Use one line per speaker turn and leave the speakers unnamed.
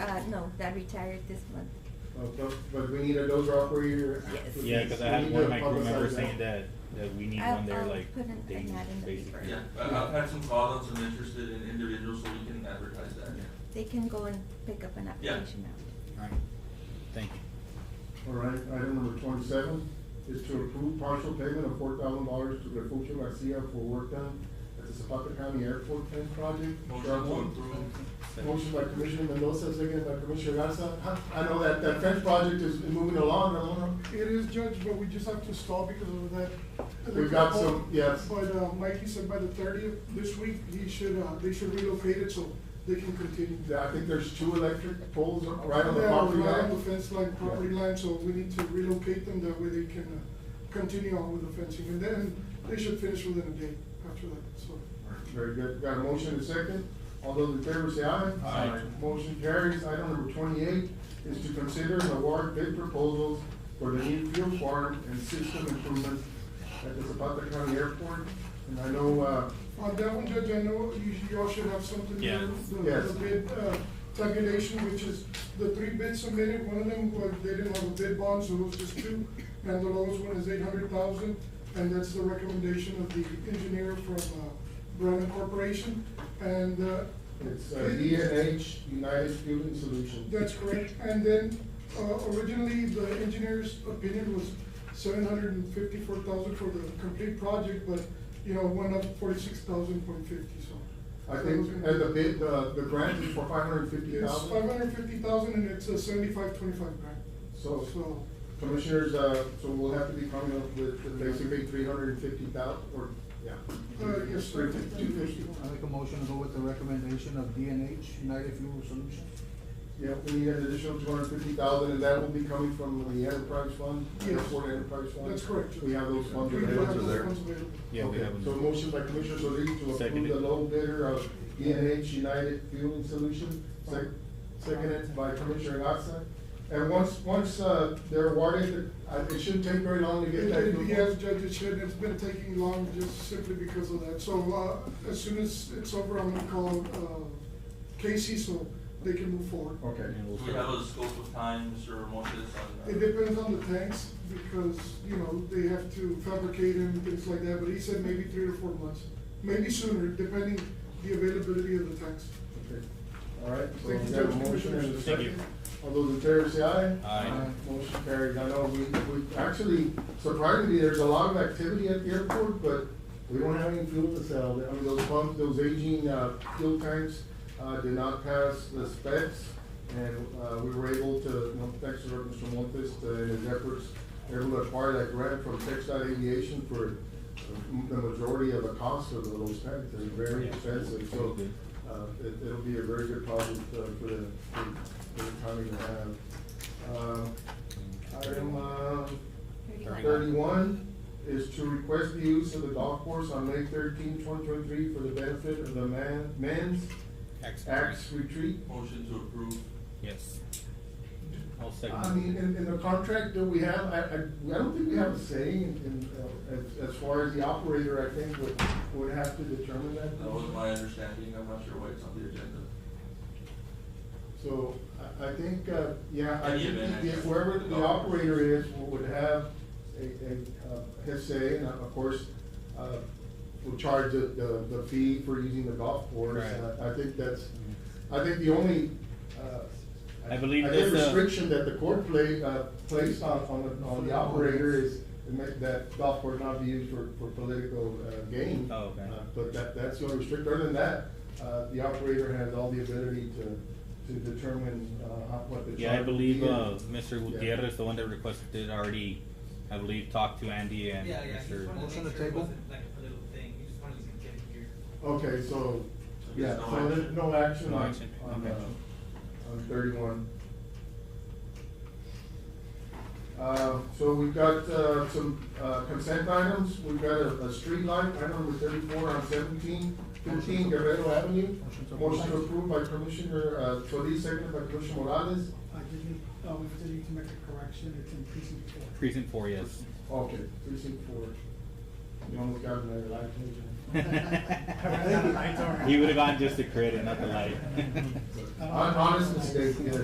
Uh, No, that retired this month.
Uh, But, but we need a dozer operator.
Yes.
Yeah, because I
We
had
need
one
to
of my crew
publicize
members saying that, that we need
I'll-
one there
I'll
like
put an- a
daily,
ad in the
basically.
paper.
Yeah, I- I've had some calls on some interested in individuals, so we can advertise that.
They can go and pick up an application out.
Alright, thank you.
All right, item number twenty-seven is to approve partial payment of four thousand dollars to Refugio Garcia for work done at the Zapata County Airport Fence Project.
Motion
Round
to
one.
approve.
Motion by Commissioner Mendoza, second by Commissioner Garza. Huh, I know that, that fence project is moving along, I don't know.
It is, Judge, but we just have to stall because of that.
We've got some- yes.
But uh, Mikey said by the thirtieth, this week, he should, uh, they should relocate it so they can continue.
I think there's two electric poles right on the
Yeah,
property
right
line.
on the fence line, property
Yeah.
line, so we need to relocate them, that way they can uh, continue on with the fencing. And then they should finish within a day after that, so.
Very good. Got a motion and a second. All those in favor say aye.
Aye.
Motion carries. Item number twenty-eight is to consider and award bid proposals for the new fuel farm and system improvements at the Zapata County Airport. And I know, uh,
On that one, Judge, I know you, you all should have something.
Yeah.
there, the-
Yes.
The bid, uh, tabulation, which is the three bids submitted, one of them, was they didn't have a bid bond, so it was just two. And the lowest one is eight hundred thousand, and that's the recommendation of the engineer from, uh, Brennan Corporation. And, uh.
it's
it-
D and H United Fueling Solutions.
that's correct, and then, uh, originally, the engineer's opinion was seven hundred and fifty-four thousand for the complete project, but, you know, went up forty-six thousand point fifty, so.
I think, and the bid, uh, the, the grant is for five hundred and fifty
It's five
thousand.
hundred and fifty thousand, and it's a seventy-five, twenty-five grand.
So-
So,
Commissioners, uh, so we'll have to be coming up with basically three hundred and fifty thousand, or, yeah.
Uh, yes, sir.
Three fifty, two fifty.
I make a motion to go with the recommendation of DNH, United Fuel Solutions.
Yeah, we need an additional two hundred fifty thousand, and that will be coming from the enterprise fund,
Yes.
airport enterprise fund?
That's correct.
We have those funds
We do have
available?
those
there.
funds available.
Yeah, we
Okay,
have them.
So motion by Commissioner Solis to approve
Seconded.
the low bidder of ENH United Fueling Solution, sec- seconded by Commissioner Gatsa. And once, once, uh, they're awarded, uh, it shouldn't take very long to get that.
And
approval.
Yes, Judge, it should, it's been taking long just simply because of that, so, uh, as soon as it's over, I'm gonna call, uh, Casey, so they can move forward.
Okay.
And
Do
we'll
we have
start-
a scope of time, Mr. Montes, on uh, that?
It depends on the tanks, because, you know, they have to fabricate and things like that, but he said maybe three to four months, maybe sooner, depending the availability of the tanks.
Okay. All right, so we
Thank you,
have a
Judge.
motion and a
Thank you.
second. All those in favor say aye.
Aye.
Motion carried. I know we, we, actually, surprisingly, there's a lot of activity at the airport, but we don't have any fuel to sell. I mean, those pumps, those aging, uh, fuel tanks, uh, did not pass the specs. And, uh, we were able to, you know, thanks to Mr. Montes, uh, and his efforts, able to acquire that grant from Tech Dot Aviation for uh, the majority of the cost of those tanks. They're very
Yeah.
expensive, so,
Okay.
uh, it, it'll be a very good project, uh, for the, for the county to have. Uh, Item, uh,
Thirty.
thirty-one is to request the use of the golf course on May 13, 2023, for the benefit of the man, men's axe retreat.
Motion to approve.
Yes. I'll
I mean,
second.
in, in the contract that we have, I, I, I don't think we have a say in, in, uh, as, as far as the operator, I think, would, would have to determine that.
That was my understanding, I'm not sure why it's on the agenda.
So I, I think, uh, yeah, I
Any
think
event,
the-
I guess.
whoever the operator is would have a, a, uh, his say, and of course, uh, will charge the, the, the fee for using the golf course.
Right.
Uh, I think that's, I think the only, uh.
I believe
think
that's, uh,
restriction that the court play, uh, placed on, on the, on the operator is to make that golf course not be used for, for political, uh, gain.
Oh, okay.
Uh, But that, that's the only restrict, other than that, uh, the operator has all the ability to, to determine, uh, how- what the charge.
Yeah, I believe,
is.
uh, Mr.
Yeah.
Gutierrez, the one that requested it already, I believe, talked to Andy and
Yeah, yeah, he just
Mr.
wanted to
Motion
make
to
sure it
table?
wasn't like a little thing, he just wanted to get it here.
Okay, so,
So
yeah,
there's no
so there's
action.
no action
No
on,
action.
on,
Okay.
uh, on thirty-one. Uh, so we've got, uh, some, uh, consent items, we've got a, a street light, item number thirty-four on seventeen fifteen Guerrero Avenue.
Motion to approve.
Motion approved by Commissioner, uh, Solis, second by Commissioner Morales.
I did need, uh, we did need to make a correction, it's in precinct four.
Precinct Four, yes.
Okay, precinct four. You almost got another light,
He
didn't
would
you?
have gone just the credit, not the light. Uh,
Hon- Honest mistake, yeah.